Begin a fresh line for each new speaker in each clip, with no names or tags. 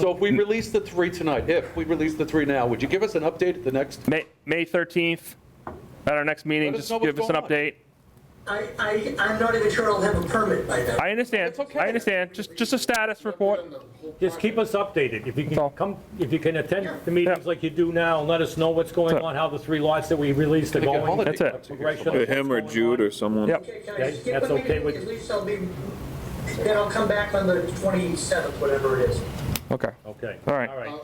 So if we release the three tonight, if we release the three now, would you give us an update at the next?
May, May 13th, at our next meeting,
Let us
just
know what's
give us an
going on.
update.
I, I, I'm not even sure I'll have a permit by then.
I understand,
It's okay.
I understand, just, just a status report.
Just keep us updated. If you
all.
can come, if you can attend the meetings like you do now, and let us know what's going
That's it.
on, how the three lots that we released are
Take a
going.
holiday.
That's it.
progression of
Yeah,
what's
Him or
going on.
Jude or someone.
Yep.
Okay, can I
Okay,
skip a
that's okay
meeting?
with-
At least I'll be, then I'll come back on the 27th, whatever it is.
Okay,
Okay.
All right.
All right.
Uh,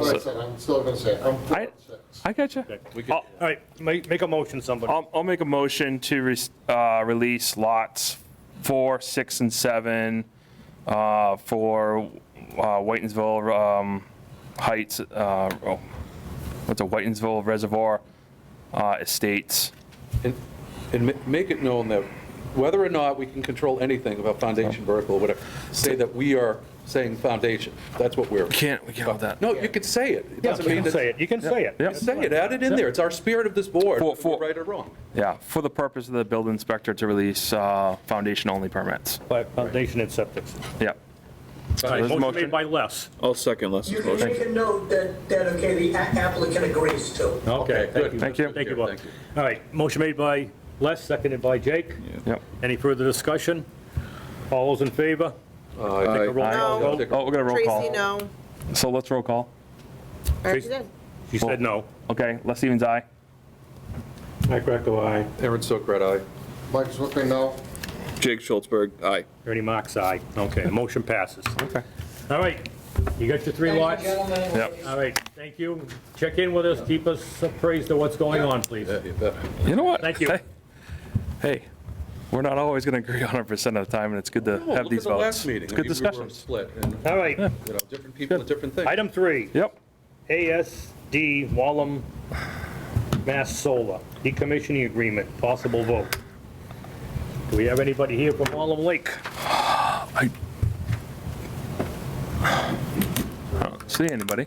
Like I said, I'm still gonna say, it. I'm for
I-
it, so.
I gotcha.
All right, make, make a motion, somebody.
I'll, I'll make a motion to re- uh, release lots four, six, and seven uh, for uh, Whitensville um, Heights, uh, oh, what's a Whitensville Reservoir uh, Estates.
And and ma- make it known that whether or not we can control anything about foundation
Oh.
vertical or whatever, say that we are saying foundation. That's what we're.
Can't, we can't have that.
No, you could say it. It
Yeah,
doesn't
you
mean
can
that.
say it, you can say it.
Yeah.
That's
Say it,
fine.
add it in there. It's our spirit of this board,
For-
whether
for-
we're right or wrong.
Yeah, for the purpose of the building inspector to release uh, foundation-only permits.
By Foundation and septic.
Yeah.
All right,
there's a
motion
motion.
made by Les.
I'll second Les'
You can
motion.
make a note that, that, okay, the a- applicant agrees to.
Okay,
good.
thank you.
Thank you.
Thank you,
Yeah,
Bob.
thank you.
All right, motion made by Les, seconded by Jake.
Yep.
Any further discussion? All those in favor?
Uh,
Take a roll call
No.
vote.
Oh, we're gonna roll call.
Tracy, no.
So let's roll call.
I already did.
She said no.
Okay, Les Stevens, aye.
Mike Greco, aye.
Aaron Sokrat, aye.
Mike Zwickman, no.
Jake Schultzberg, aye.
Ernie Mac's aye. Okay, the motion passes.
Okay.
All right, you got your three
Thank
lots?
you, gentlemen.
Yep.
All right, thank you. Check in with us, keep us appraised of what's going on, please.
Yeah, you bet.
You know what?
Thank you.
Hey- Hey, we're not always going to agree 100% of the time, and it's good
No,
to have
Look at
these
the last
votes.
meeting.
It's
I mean,
good
we were
discussions.
Split, and,
All right,
you know, different people and different things.
item three,
Yep,
ASD Wallem Mass Solar, decommissioning agreement, possible vote. Do we have anybody here from Wallem Lake?
see anybody?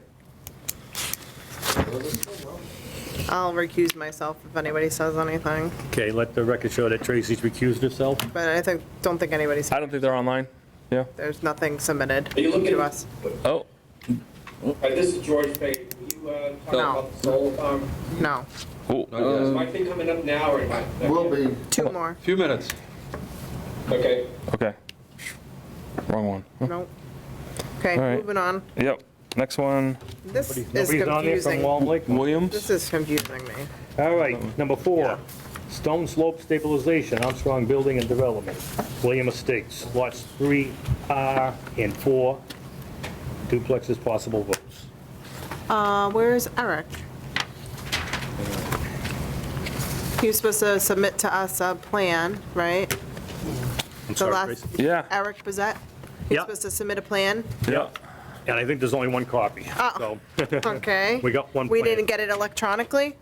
I'll recuse myself if anybody says anything,
Okay, let the record show that Tracy's recused herself.
but I think, don't think anybody's,
I don't think they're online. Yeah.
there's nothing submitted
Are you looking-
to us.
Oh,
Hi, this is George Payton. Will you uh, talk
No.
about the solar farm?
No,
oh,
Is my thing coming up now or am I?
Will be,
two more.
Few minutes.
Okay.
okay. Wrong one.
Nope. Okay,
All right.
moving on.
Yep, next one,
This is
Nobody's on there from
confusing.
Wallem Lake?
Williams?
This is confusing me.
All right, number four, stone slope stabilization, Armstrong Building and Development, William Estates, lots 3R and 4, duplexes possible votes.
Uh, where is Eric? He was supposed to submit to us a plan, right?
I'm
The
sorry,
last,
Tracy.
Yeah,
Eric Bezat? He's
Yeah.
supposed to submit a plan?
yeah.
And I think there's only one copy, so
Okay.
we got one
We
plan.
didn't get it electronically?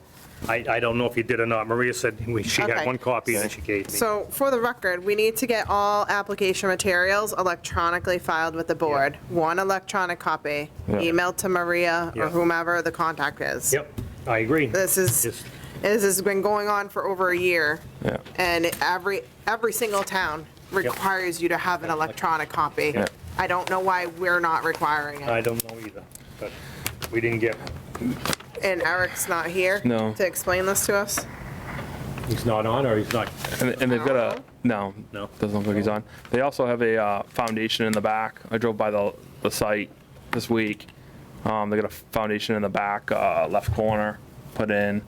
I, I don't know if you did or not. Maria said we- she had
Okay.
one copy and she gave me.
So for the record, we need to get all application materials electronically filed with the board. One electronic copy,
Yeah.
emailed to Maria
Yeah.
or whomever the contact is.
Yep, I agree.
This is,
Just-
this has been going on for over a year.
Yeah.
And every, every single town requires you to have an electronic copy.
Yeah.
I don't know why we're not requiring
I
it.
don't know either, but we didn't get, one.
And Eric's not here.
No.
To explain this to us.
he's not on or he's not,
And and they've got a, no,
No.
doesn't look like he's on. They also have a uh, foundation in the back. I drove by the, the site this week. Um, They got a foundation in the back, uh, left corner, put in.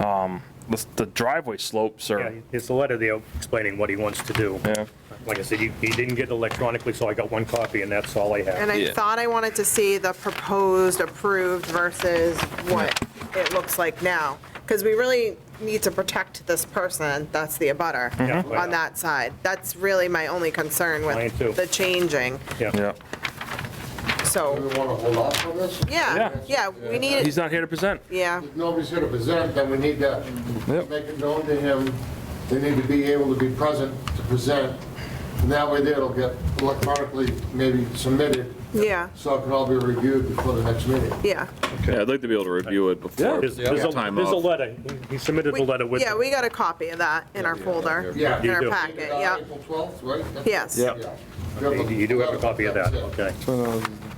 Um, The the driveway slopes
yeah,
are,
it's a letter there explaining what he wants to do.
yeah,
Like I said, he, he didn't get it electronically, so I got one copy and that's all I have.
And I thought I wanted to see the proposed approved versus what it looks like now. Because we really need to protect this person, that's the abutter,
Yeah.
on that side. That's really my only concern
Mine too.
with the changing.
Yeah.
yeah.
do we
So,
wanna hold off on this?
yeah, yeah, we need,
He's
it.
not here to present.
yeah,
If nobody's here to present, then we need to
Yep.
make it known to him, they need to be able to be present to present. And that way there it'll get electronically maybe submitted,
yeah,
so it can all be reviewed before the next meeting.
yeah.
Yeah, I'd like to be able to review it before
There's, there's a,
time
there's a
off.
letter. uh, He submitted
We-
a letter with.
Yeah, we got a copy of that in our folder,
Yeah.
in
You
our
do.
packet, yeah.
April 12th, right?
Yes.
Yeah.
You do have a copy of that, okay.